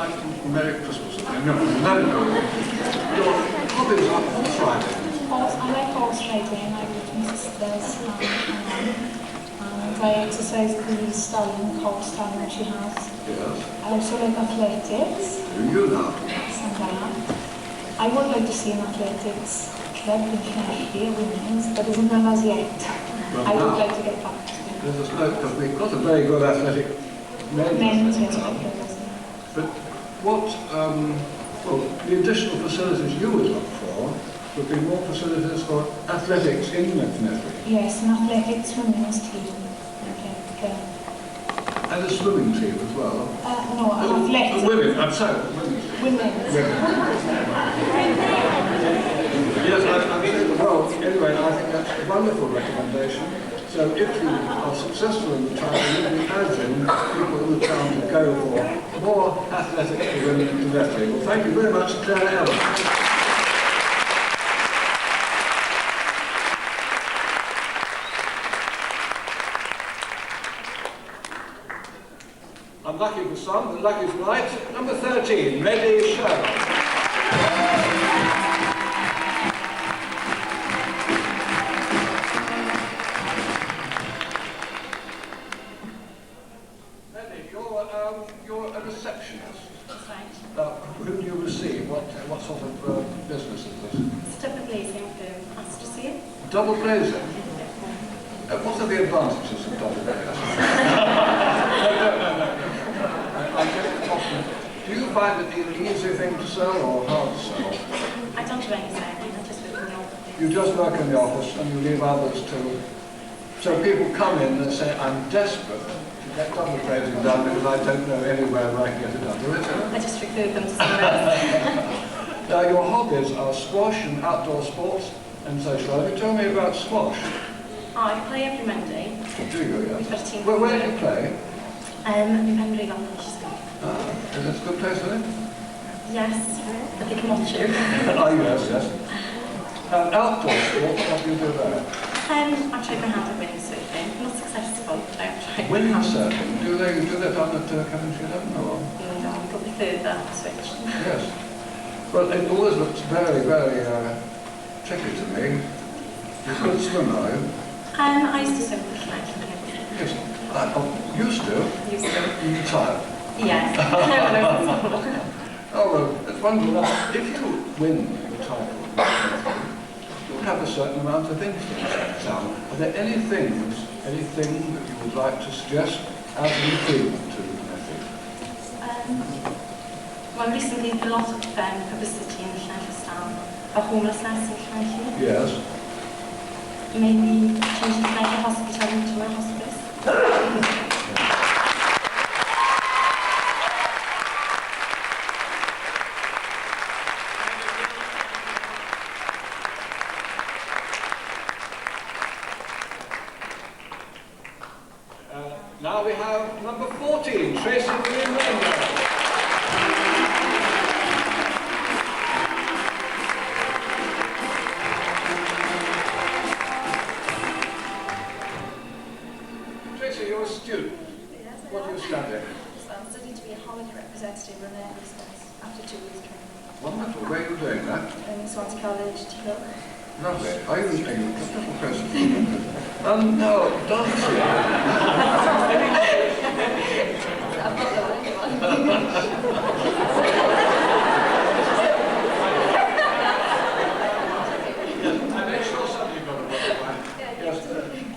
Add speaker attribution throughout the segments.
Speaker 1: Merry Christmas. No, let it go. Your hobbies are on Friday.
Speaker 2: Horse- I like horseback I go to Mrs. Blair's farm and um, I exercise the stallion, cold stallion she has.
Speaker 1: Yes.
Speaker 2: I also like athletics,
Speaker 1: Do you now?
Speaker 2: and that. I would like to see an athletics club in Canada, women's, but isn't done as yet. I would like to get back to
Speaker 1: There's a snow, because we've got a very good athletic
Speaker 2: that.
Speaker 1: men's
Speaker 2: men's,
Speaker 1: athletic
Speaker 2: yes,
Speaker 1: club.
Speaker 2: I
Speaker 1: But what, um, well, the additional facilities you would look for would be more facilities for athletics in Methnetry
Speaker 2: Yes, an athletics women's team, athletic club.
Speaker 1: and a swimming team as well.
Speaker 2: Uh, no, an
Speaker 1: Oh,
Speaker 2: athletic,
Speaker 1: Women, I'm sorry, women.
Speaker 2: women's.
Speaker 1: Yes, I, I think, well, anyway, I think that's a wonderful recommendation. So if you are successful in the town, you can imagine people in the town to go for more athletics for women in Methnetry. Well, thank you very much, Claire Ellen. Unlucky for some, but lucky for right. Number 13, Reddy Sherlock. Reddy, you're, um, you're a receptionist.
Speaker 3: That's right.
Speaker 1: Now, who do you receive? What, what sort of uh, business is this?
Speaker 3: It's double glazing for pasture
Speaker 1: Double glazing. Uh, what are the advantages of double glazing? I, I get the question. Do you find it an easy thing to sell or hard to sell?
Speaker 3: I don't do any selling, I just work in the office.
Speaker 1: You just work in the office and you leave others to... So people come in and say, I'm desperate to get double glazing done because I don't know anywhere where I can get it done. There isn't.
Speaker 3: I just refer them to someone else.
Speaker 1: Now, your hobbies are squash and outdoor sports and social life. You Tell me about squash.
Speaker 3: oh, I play every Monday.
Speaker 1: Do you, yes?
Speaker 3: We've got a team.
Speaker 1: Where, where do you play?
Speaker 3: Um, in Penry Valley School.
Speaker 1: Uh, is it a good place, isn't it?
Speaker 3: Yes, but they can watch you.
Speaker 1: oh, yes, yes. Um, outdoor sports, what do you do there?
Speaker 3: Um, I tried my hand at windsurfing. Not successful, but I tried. my hand.
Speaker 1: Windsurfing. Do they do that down at uh, Coventry Eleven or?
Speaker 3: No, I'll probably further switch.
Speaker 1: Yes. Well, it always looks very, very uh, tricky to me. You're a good swimmer, are you?
Speaker 3: Um, I used to swim with flags and everything.
Speaker 1: Yes. I, I used to.
Speaker 3: Used to.
Speaker 1: You retired.
Speaker 3: Yes. When I was small.
Speaker 1: Oh, well, it's wonderful. If you win the title, you'll have a certain amount of influence down. Are there any things, anything that you would like to suggest as an improvement to Matthew?
Speaker 3: Um, well, recently there's a lot of um, publicity in Llanfairstown about homelessness in Llanfair.
Speaker 1: Yes.
Speaker 3: Maybe changing the mental hospital into a hospice.
Speaker 1: Uh, now we have number 14, Tracy Green Rainbow. Tracy, you're a student.
Speaker 4: Yes, I
Speaker 1: What do
Speaker 4: am.
Speaker 1: you study?
Speaker 4: Um, So I'm studying to be a Holland representative on their business after two years training.
Speaker 1: Wonderful. Where are you doing that?
Speaker 4: Um, Swansea College to go.
Speaker 1: Lovely. Are you a little person? um, no, dancing.
Speaker 4: I've got the right one.
Speaker 1: I make sure somebody got a Yes,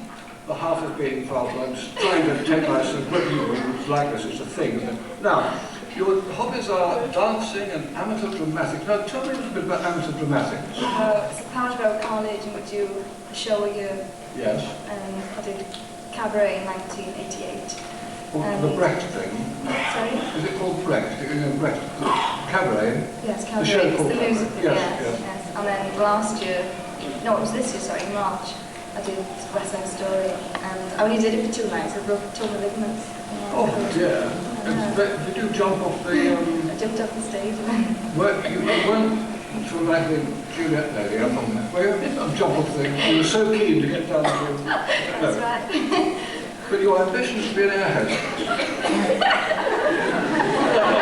Speaker 1: the half is being filed. I'm just trying to take my subliminal like this is a thing. Isn't it? Now, your hobbies are dancing and amateur dramatics. Now, tell me a little bit about amateur dramatics.
Speaker 4: Uh, so part of college and we do a show a year.
Speaker 1: Yes.
Speaker 4: Um, I did cabaret in 1988.
Speaker 1: Or the Brecht thing.
Speaker 4: Sorry?
Speaker 1: Is it called Brecht? You know, Brecht cabaret.
Speaker 4: Yes,
Speaker 1: The
Speaker 4: cabaret.
Speaker 1: show
Speaker 4: it's
Speaker 1: called
Speaker 4: the
Speaker 1: cabaret.
Speaker 4: musical.
Speaker 1: Yes,
Speaker 4: yes,
Speaker 1: yes.
Speaker 4: yes. And then last year, no, it was this year, sorry, in March, I did West End Story. And I only did it for two nights. I broke two of my ligaments.
Speaker 1: Oh dear. It's, but you do jump off the. Um,
Speaker 4: I jumped off the stage and
Speaker 1: Well, you weren't sort of like the Juliet lady, I'm on that. Well, you're on top of things. You were so keen to get down to
Speaker 4: that's
Speaker 1: no.
Speaker 4: right.
Speaker 1: But your ambition is to be an air hostess.